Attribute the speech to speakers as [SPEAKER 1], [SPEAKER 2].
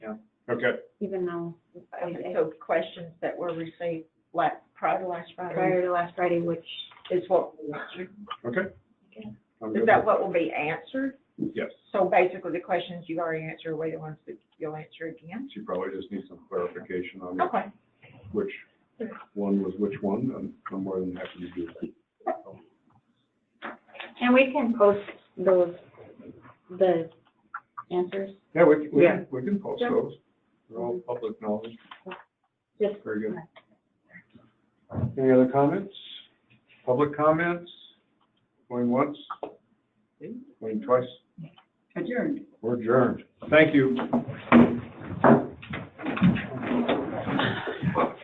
[SPEAKER 1] even know,
[SPEAKER 2] Okay, so questions that were received last, prior to last Friday
[SPEAKER 1] prior to last Friday, which,
[SPEAKER 2] is what,
[SPEAKER 3] Okay.
[SPEAKER 1] Okay.
[SPEAKER 3] I'm
[SPEAKER 2] is
[SPEAKER 3] good
[SPEAKER 2] that
[SPEAKER 3] with-
[SPEAKER 2] what will be answered?
[SPEAKER 3] Yes,
[SPEAKER 2] So basically, the questions you already answered, were the ones that you'll answer again?
[SPEAKER 3] she probably just needs some clarification on
[SPEAKER 2] Okay,
[SPEAKER 3] which one was which one, and I'm more than happy to do that.
[SPEAKER 1] and we can post those, the answers,
[SPEAKER 3] Yeah, we, we,
[SPEAKER 2] Yeah.
[SPEAKER 3] can- we can post
[SPEAKER 1] Yeah.
[SPEAKER 3] those, they're all public knowledge,
[SPEAKER 1] just
[SPEAKER 3] very good. Any other comments? Public comments? Going once? Going twice?
[SPEAKER 2] adjourned.
[SPEAKER 3] We're adjourned. Thank you.